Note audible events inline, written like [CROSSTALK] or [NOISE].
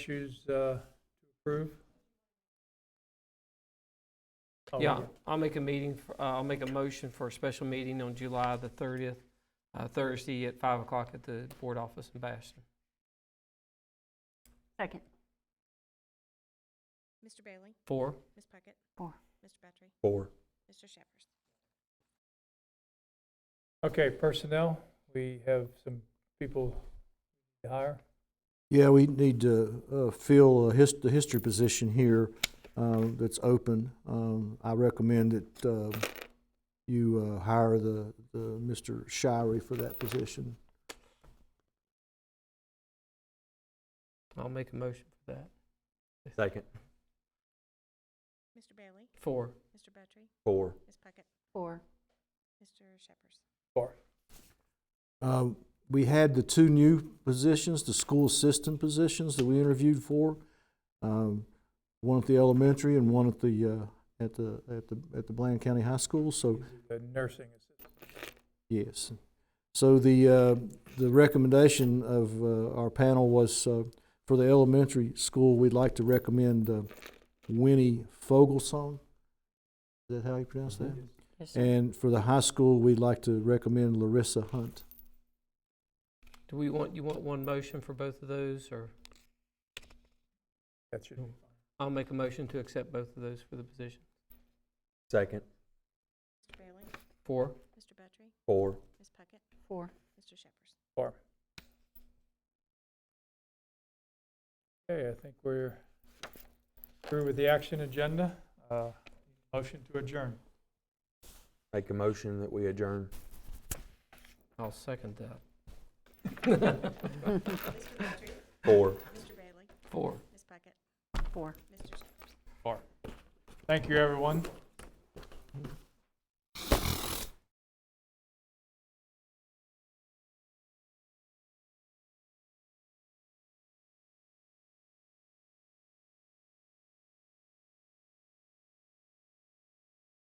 issues uh, to approve? Oh, Yeah, I'll make a meeting, for- uh, I'll make a motion for a special meeting on July the 30th, uh, Thursday at 5 o'clock at the board office in Bastrop. Second. Mr. Bailey? Four? Ms. Puckett? Four. Mr. Petrie? Four. Mr. Shepherd? Okay, personnel, we have some people to hire. Yeah, we need to uh, fill a his- the history position here uh, that's open. Um, I recommend that uh, you uh, hire the, the Mr. Shirey for that position. I'll make a motion for that. Second. Mr. Bailey? Four. Mr. Petrie? Four. Ms. Puckett? Four. Mr. Shepherd? Um, We had the two new positions, the school assistant positions that we interviewed for, um, one at the elementary and one at the, uh, at the, at the, at the Bland County High School. So The nursing assistant. Yes. So the, uh, the recommendation of, uh, our panel was, uh, for the elementary school, we'd like to recommend, uh, Winnie Fogelsong. Is that how you pronounce that? And for the high school, we'd like to recommend Larissa Hunt. Do we want, you want one motion for both of those, or That should be fine. I'll make a motion to accept both of those for the position? Second. Mr. Bailey? Four? Mr. Petrie? Four. Ms. Puckett? Four. Mr. Shepherd? Okay, I think we're through with the action agenda. Uh, Motion to adjourn. Make a motion that we adjourn. I'll second that. Mr. Petrie? Four. Mr. Bailey? [LAUGHS] Four. Ms. Puckett? Four. Mr. Shepherd? Thank you, everyone.